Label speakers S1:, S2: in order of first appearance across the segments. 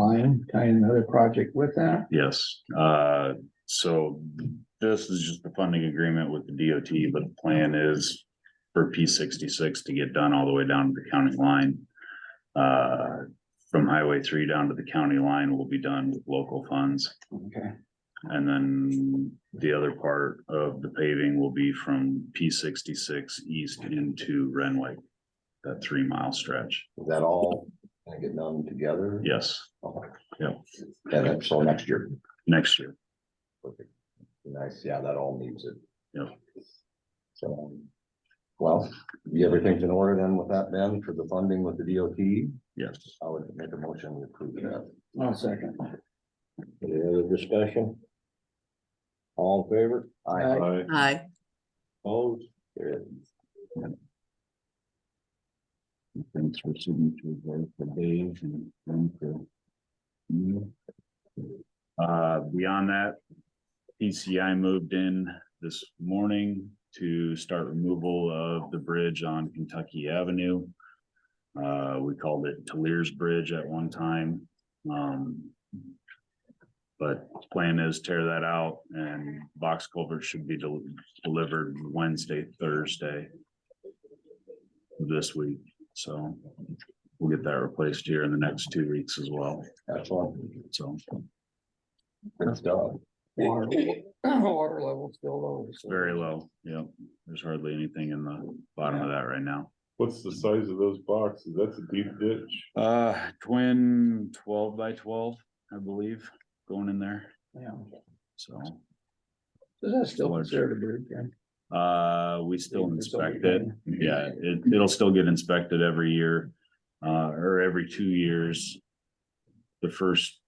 S1: line, tie in another project with that.
S2: Yes, uh, so this is just the funding agreement with the DOT, but the plan is for P sixty-six to get done all the way down to the county line. Uh, from Highway three down to the county line will be done with local funds.
S1: Okay.
S2: And then the other part of the paving will be from P sixty-six east into Renwick. That three mile stretch,
S3: Is that all gonna get done together?
S2: yes,
S3: Okay.
S2: Yeah.
S3: And then, so next year,
S2: next year.
S3: perfect. Nice, yeah, that all needs it.
S2: Yeah.
S3: So, well, you- everything's in order then with that, Ben, for the funding with the DOT,
S2: Yes,
S3: I would make a motion to approve that.
S1: I'll second.
S3: Any other discussion? All in favor?
S1: Aye.
S4: Hi,
S3: Opposed? There is.
S2: thanks for signature there for Dave and then for. you. Uh, beyond that, PCI moved in this morning to start removal of the bridge on Kentucky Avenue. Uh, we called it Talers Bridge at one time, um. But plan is tear that out and box culvert should be del- delivered Wednesday, Thursday. This week. So we'll get that replaced here in the next two weeks as well.
S3: Excellent.
S2: So
S3: Good stuff.
S1: Water water level still low.
S2: it's
S1: so-
S2: very low. Yeah, there's hardly anything in the bottom of that right now.
S5: What's the size of those boxes? That's a deep ditch.
S2: Uh, twin twelve by twelve, I believe, going in there.
S1: Yeah.
S2: So,
S1: Does that still consider a bridge? yeah?
S2: uh, we still inspect it. Yeah, it, it'll still get inspected every year, uh, or every two years. The first.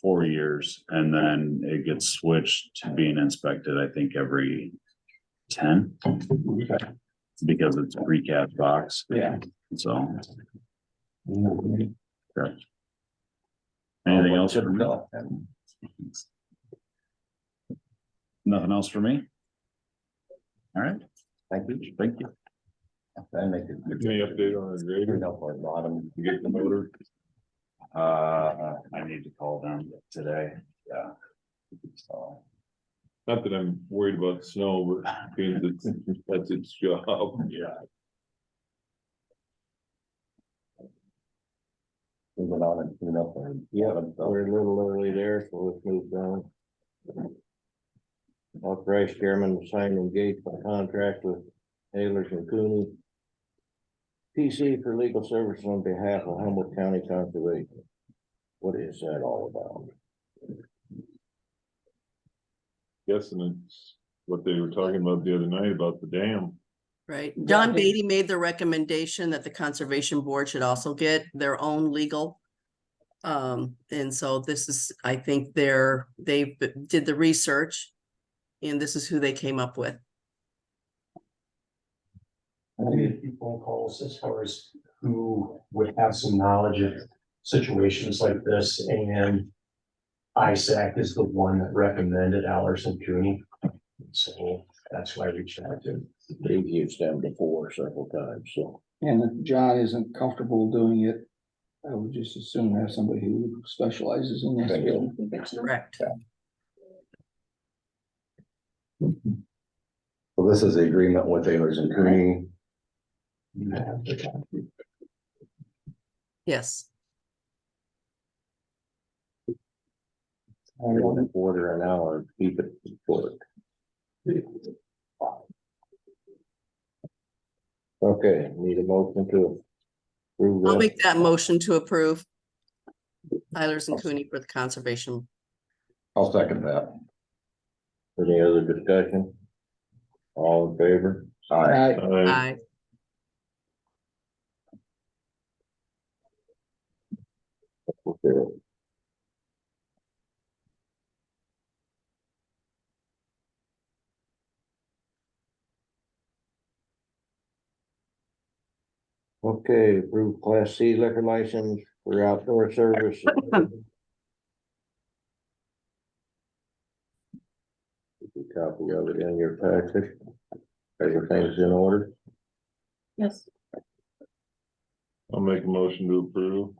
S2: Four years and then it gets switched to being inspected, I think, every ten. Because it's a recap box,
S1: Yeah.
S2: so
S3: Anything
S2: anything else? for me?
S3: All
S2: Nothing else for me? All right,
S3: Thank you.
S2: thank you.
S3: I make it.
S5: Give me an update on the grader.
S3: Up on bottom.
S5: You get the motor.
S2: Uh, I need to call them today, yeah. So.
S5: Not that I'm worried about snow, but because it's, that's its job.
S2: Oh, Yeah.
S3: Moving on and clean up and. Yeah, we're a little early there, so let's move down. Authorized chairman to sign engaged by contract with Ayers and Cooney. PC for legal services on behalf of Humboldt County Conservation. What is that all about?
S5: Guessing it's what they were talking about the other night about the dam.
S4: right. Don
S1: I think-
S4: Beatty made the recommendation that the Conservation Board should also get their own legal. Um, and so this is, I think they're, they b- did the research. And this is who they came up with.
S6: I made a few phone calls as far as who would have some knowledge of situations like this and. ISAC is the one that recommended Allerson Cooney. So that's why I reached out to.
S3: They've used them before several times, so.
S1: And if John isn't comfortable doing it, I would just assume have somebody who specializes in this. field.
S4: Correct.
S3: So this is the agreement with Ayers and Cooney.
S4: Yes.
S3: One and a quarter an hour, keep it short. Okay, need a motion to approve
S4: I'll
S3: that.
S4: make that motion to approve. Eilers and Cooney for the Conservation.
S3: I'll second that. Any other discussion? All in favor? Aye.
S1: I,
S5: Uh,
S4: Aye.
S3: Okay. Okay, approve class C liquor license for outdoor service. A Copy of it in your package. Everything's in order.
S7: Yes,
S5: I'll make a motion to approve.